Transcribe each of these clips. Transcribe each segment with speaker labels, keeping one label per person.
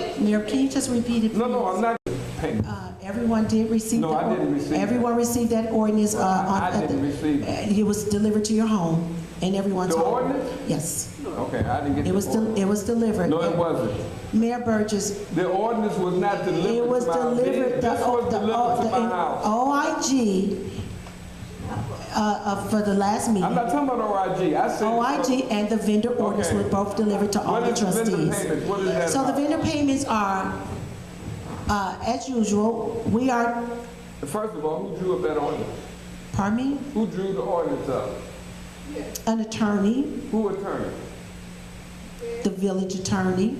Speaker 1: Mayor, can you just repeat it?
Speaker 2: No, no,
Speaker 1: please?
Speaker 2: I'm not paying.
Speaker 1: Uh, Everyone did receive.
Speaker 2: No,
Speaker 1: the
Speaker 2: I didn't
Speaker 1: or-
Speaker 2: receive that.
Speaker 1: Everyone received that ordinance. uh, on-
Speaker 2: I
Speaker 1: at the-
Speaker 2: didn't receive
Speaker 1: uh, It was delivered to your home, and everyone's
Speaker 2: The
Speaker 1: home.
Speaker 2: ordinance?
Speaker 1: Yes,
Speaker 2: Okay, I didn't get
Speaker 1: it was,
Speaker 2: the
Speaker 1: del-
Speaker 2: ordinance.
Speaker 1: it was delivered.
Speaker 2: No, it wasn't.
Speaker 1: Mayor Burgess,
Speaker 2: The ordinance was not delivered
Speaker 1: It was
Speaker 2: to my
Speaker 1: delivered, the,
Speaker 2: This was
Speaker 1: the,
Speaker 2: delivered to my house.
Speaker 1: the OIG, uh, uh, for the last
Speaker 2: I'm
Speaker 1: meeting.
Speaker 2: not talking about OIG. Oh, I said.
Speaker 1: OIG and the vendor orders were
Speaker 2: Okay.
Speaker 1: both delivered to all
Speaker 2: What
Speaker 1: the
Speaker 2: is the vendor
Speaker 1: trustees.
Speaker 2: payment? What is that
Speaker 1: So the
Speaker 2: about?
Speaker 1: vendor payments are, uh, as usual, we are,
Speaker 2: First of all, who drew up that ordinance?
Speaker 1: pardon me,
Speaker 2: Who drew the ordinance up?
Speaker 1: an attorney,
Speaker 2: Who attorney?
Speaker 1: the village attorney.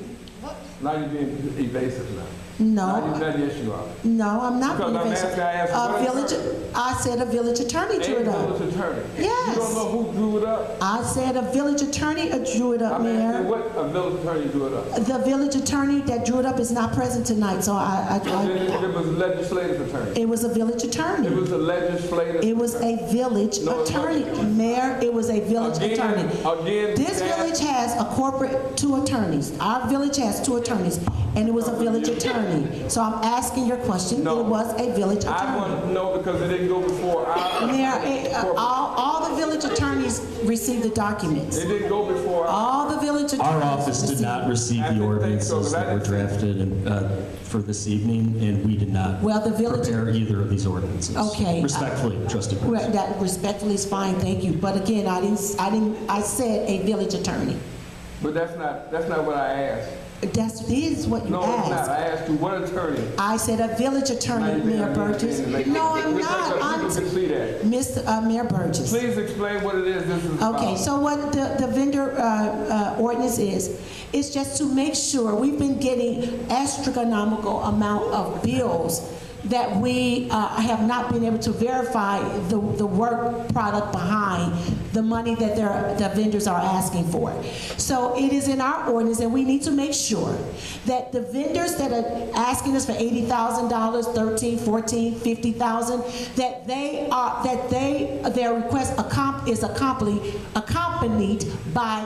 Speaker 2: Now you're being evasive now. Now you-
Speaker 1: No,
Speaker 2: now yes, you are.
Speaker 1: no, I'm not.
Speaker 2: Because I'm
Speaker 1: being
Speaker 2: asking- I asked
Speaker 1: A
Speaker 2: what
Speaker 1: village,
Speaker 2: attorney?
Speaker 1: I said a village attorney drew
Speaker 2: A
Speaker 1: it up.
Speaker 2: village attorney.
Speaker 1: Yes.
Speaker 2: You don't know who drew it up?
Speaker 1: I said a village attorney uh, drew it up,
Speaker 2: I'm
Speaker 1: Mayor.
Speaker 2: asking what a village attorney drew it up.
Speaker 1: The village attorney that drew it up is not present tonight, so I,
Speaker 2: Then
Speaker 1: I,
Speaker 2: It it was a legislative attorney.
Speaker 1: I, it was a village
Speaker 2: It
Speaker 1: attorney.
Speaker 2: was a legislative.
Speaker 1: It was a village
Speaker 2: No, it
Speaker 1: attorney,
Speaker 2: wasn't.
Speaker 1: mayor, it was a village attorney.
Speaker 2: Again, again.
Speaker 1: This
Speaker 2: that-
Speaker 1: village has a corporate, two attorneys. Our village has two attorneys, and it was a village attorney. So I'm asking your question, it
Speaker 2: No.
Speaker 1: was a village
Speaker 2: I
Speaker 1: attorney.
Speaker 2: want to know because it didn't go before our.
Speaker 1: Mayor, it- uh, all,
Speaker 2: corporate.
Speaker 1: all the village attorneys received the documents.
Speaker 2: It didn't go before our.
Speaker 1: All the village attorneys.
Speaker 3: Our office did
Speaker 1: received-
Speaker 3: not receive the ordinances that were drafted uh, for this evening, and we did not
Speaker 1: Well, the village-
Speaker 3: prepare either of these ordinances.
Speaker 1: Okay.
Speaker 3: Respectfully, trustee Burns.
Speaker 1: Well, That respectfully is fine, thank you. But again, I didn't, I didn't, I said a village attorney.
Speaker 2: But that's not, that's not what I asked.
Speaker 1: That's, this is what you
Speaker 2: No, it's not.
Speaker 1: asked.
Speaker 2: I asked you what attorney.
Speaker 1: I said a village
Speaker 2: Now
Speaker 1: attorney,
Speaker 2: you're being
Speaker 1: Mayor Burgess.
Speaker 2: evasive, like-
Speaker 1: No, I'm
Speaker 2: Because
Speaker 1: not,
Speaker 2: People can
Speaker 1: I'm,
Speaker 2: see that.
Speaker 1: Mr. uh, Mayor Burgess.
Speaker 2: Please explain what it is this is about.
Speaker 1: Okay, so what the, the vendor uh, uh, ordinance is, is just to make sure, we've been getting astronomical amount of bills that we uh, have not been able to verify the, the work product behind the money that they're, the vendors are asking for. So it is in our ordinance, and we need to make sure that the vendors that are asking us for eighty thousand dollars, thirteen, fourteen, fifty thousand, that they are, that they, their request accom- is accompanied, accompanied by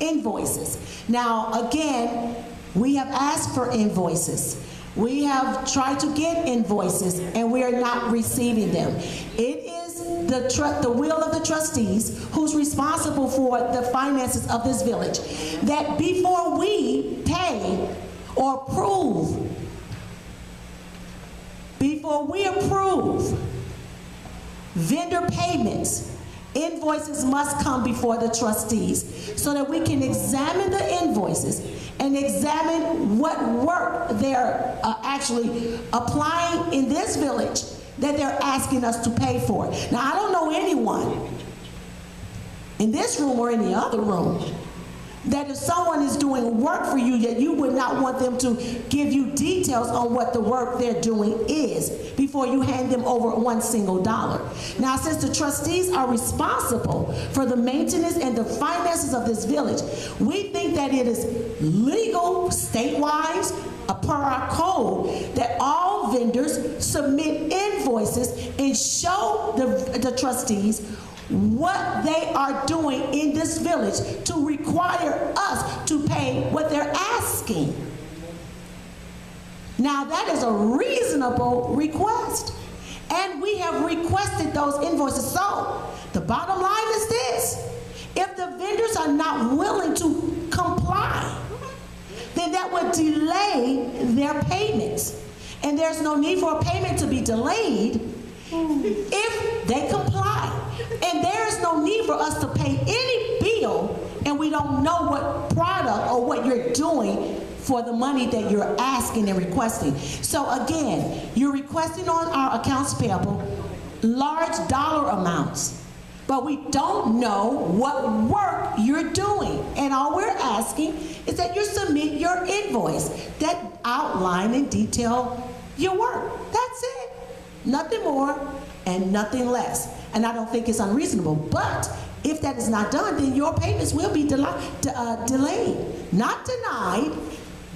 Speaker 1: invoices. Now, again, we have asked for invoices. We have tried to get invoices, and we are not receiving them. It is the tru, the will of the trustees, who's responsible for the finances of this village, that before we pay or approve, before we approve vendor payments, invoices must come before the trustees so that we can examine the invoices and examine what work they're uh, actually applying in this village that they're asking us to pay for. Now, I don't know anyone in this room or any other room that if someone is doing work for you that you would not want them to give you details on what the work they're doing is before you hand them over one single dollar now since the trustees are responsible for the maintenance and the finances of this village we think that it is legal statewide uh, per our code that all vendors submit invoices and show the, the trustees what they are doing in this village to require us to pay what they're asking. Now, that is a reasonable request. And we have requested those invoices. So, the bottom line is this if the vendors are not willing to comply, then that would delay their payments. And there's no need for a payment to be delayed if they comply. And there is no need for us to pay any bill and we don't know what product or what you're doing for the money that you're asking and requesting. So again, you're requesting on our accounts payable large dollar amounts, but we don't know what work you're doing. And all we're asking is that you submit your invoice that outline in detail your work. That's it. Nothing more and nothing less. And I don't think it's unreasonable. But if that is not done, then your payments will be deli- de- uh, delayed. Not denied,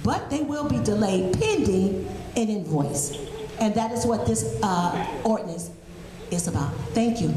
Speaker 1: but they will be delayed pending an invoice. And that is what this uh, ordinance is about. Thank you.